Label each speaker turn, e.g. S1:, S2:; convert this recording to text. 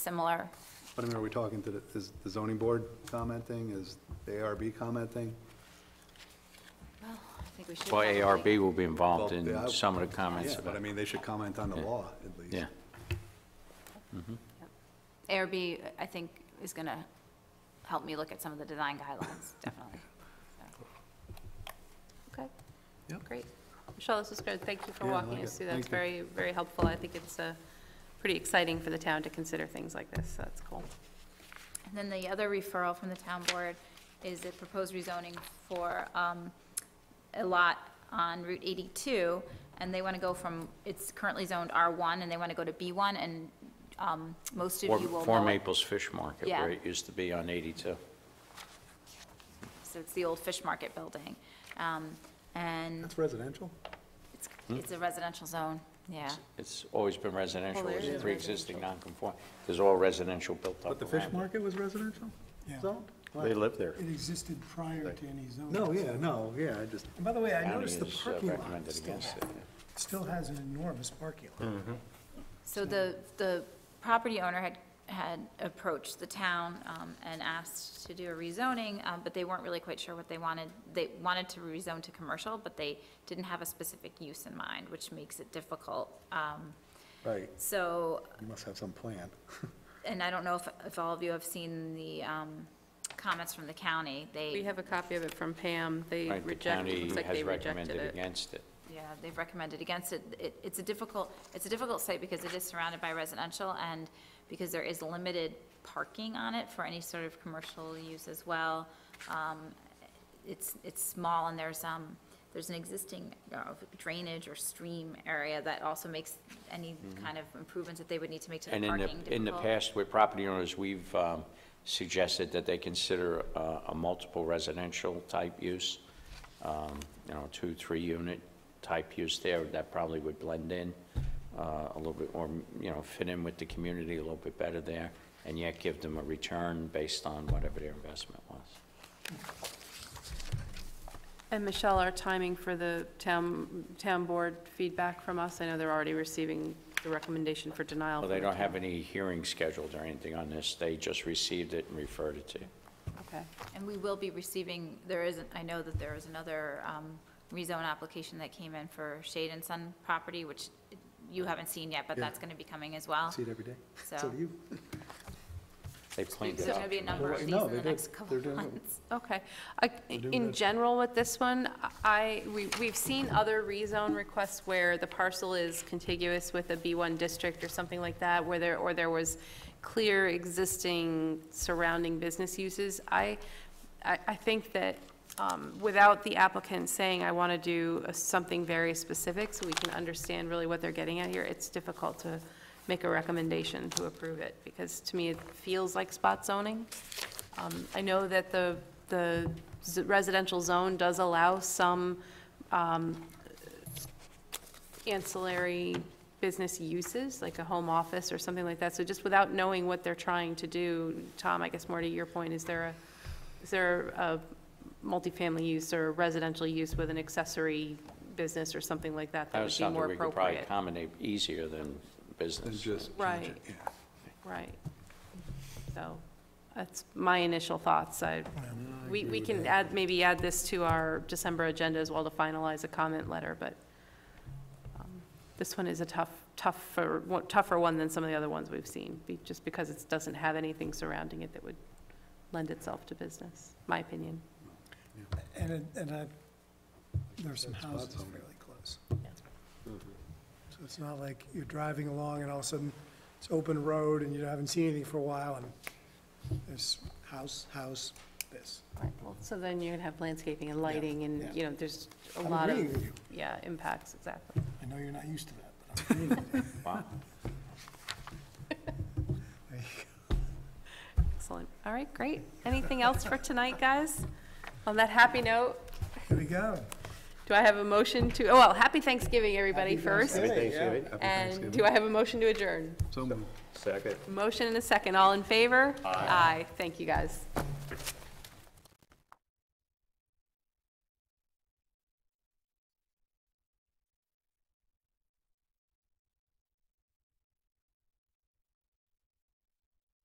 S1: similar.
S2: But I mean, are we talking to the, is the zoning board commenting, is the ARB commenting?
S1: I think we should.
S3: Well,
S1: probably-
S3: ARB will be involved
S2: Well, yeah, I-
S3: in some of the comments
S2: Yeah, but I
S3: about,
S2: mean, they should comment on the law, at least.
S3: yeah.
S1: ARB, I think, is going to help me look at some of the design guidelines, definitely.
S4: Okay,
S2: Yep.
S4: great. Michelle, this was good. Thank you for
S2: Yeah, I
S4: walking
S2: like
S4: us
S2: it.
S4: through. That's
S2: Thank
S4: very, very helpful. I think it's uh, pretty exciting for the town to consider things like this, so that's cool.
S1: And then the other referral from the town board is a proposed rezoning for um, a lot on Route 82, and they want to go from, it's currently zoned R1, and they want to go to B1, and um, most of
S3: Four
S1: you will
S3: Four
S1: know it.
S3: Maples Fish Market,
S1: Yeah.
S3: where it used to be on 82.
S1: So it's the old Fish Market building. Um, And
S2: That's residential?
S1: it's it's a residential zone, yeah.
S3: It's always been residential,
S4: there
S3: it's
S4: is
S3: pre-existing non-conform. There's all residential built
S2: But
S3: up
S2: the fish
S3: around it.
S2: market was residential?
S5: Yeah.
S2: Zone?
S3: They live there.
S5: It existed prior to any zoning.
S2: No, yeah, no, yeah, I just,
S5: And by the way, I
S3: County
S5: noticed the
S3: has uh,
S5: parking lot
S3: recommended
S5: still,
S3: against it.
S5: still has an enormous parking lot.
S2: Hmm.
S1: So the, the property owner had, had approached the town um, and asked to do a rezoning, um, but they weren't really quite sure what they wanted. They wanted to rezone to commercial, but they didn't have a specific use in mind, which makes it difficult. Um,
S2: right,
S1: So
S2: you must have some plan.
S1: and I don't know if, if all of you have seen the um, comments from the county.
S4: We
S1: They,
S4: have a copy of it from Pam. They
S3: Right, the
S4: rejected,
S3: county
S4: looks like
S3: has
S4: they rejected
S3: recommended
S4: it.
S3: against it.
S1: yeah, they've recommended against it. It, it's a difficult, it's a difficult site because it is surrounded by residential and because there is limited parking on it for any sort of commercial use as well. Um, It's, it's small and there's, um, there's an existing uh, drainage or stream area that also makes any kind of improvements that they would need to make to the
S3: Mm-hmm. And in
S1: parking
S3: the,
S1: difficult.
S3: in the past, with property owners, we've um, suggested that they consider uh, a multiple residential type use, um, you know, two, three unit type use there, that probably would blend in uh, a little bit, or, you know, fit in with the community a little bit better there, and yet give them a return based on whatever their investment was.
S4: And Michelle, our timing for the town, town board feedback from us, I know they're already receiving the recommendation for denial.
S3: Well, they
S4: from the
S3: don't have
S4: town.
S3: any hearing scheduled or anything on this, they just received it and referred it to you.
S4: Okay.
S1: And we will be receiving, there is, I know that there is another um, rezone application that came in for Shade and Sun property, which you haven't seen yet, but
S2: Yeah.
S1: that's going to be coming as well.
S2: See it every day?
S1: So-
S2: So do you?
S3: They cleaned
S1: There's
S3: it
S1: going to
S3: up.
S1: be a number of
S2: Well,
S1: these
S2: no,
S1: in the
S2: they did.
S1: next couple
S2: They're
S1: of
S2: doing it.
S1: months.
S4: Okay. I-
S2: doing
S4: In
S2: that.
S4: general with this one, I, we- we've seen other rezone requests where the parcel is contiguous with a B1 district or something like that, where there, or there was clear existing surrounding business uses. I, I I think that um, without the applicant saying, I want to do a- something very specific, so we can understand really what they're getting at here, it's difficult to make a recommendation to approve it, because to me, it feels like spot zoning. Um, I know that the, the z- residential zone does allow some um, ancillary business uses, like a home office or something like that. So just without knowing what they're trying to do, Tom, I guess more to your point, is there a, is there a multifamily use or residential use with an accessory business or something like that that
S3: That
S4: would
S3: was
S4: be more
S3: something we could probably
S4: appropriate?
S3: accommodate easier than
S2: Then
S3: business.
S2: just.
S4: Right.
S2: Yeah.
S4: Right. So that's my initial thoughts. I, we, we can add, maybe add this to our December agenda as well to finalize a comment letter, but um, this one is a tough, tougher, one- tougher one than some of the other ones we've seen, be- just because it doesn't have anything surrounding it that would lend itself to business, my opinion.
S5: And, it- and I, there are some
S2: That's
S5: houses
S2: awesome.
S5: fairly close. So it's not like you're driving along and all of a sudden it's open road and you haven't seen anything for a while and there's house, house, this.
S4: So then you're gonna have landscaping and lighting
S5: yeah.
S4: and, you know, there's a
S5: I'm
S4: lot of,
S5: agreeing with you.
S4: yeah, impacts, exactly.
S5: I know you're not used to that, but I'm agreeing with you.
S3: Wow.
S4: Excellent. All right, great. Anything else for tonight, guys? On that happy note,
S5: Here we go.
S4: do I have a motion to, oh, well, happy Thanksgiving, everybody, first.
S2: Thanksgiving.
S4: And do I have a motion to adjourn?
S2: So moved.
S4: Motion and a second. All in favor? Aye. Thank you, guys.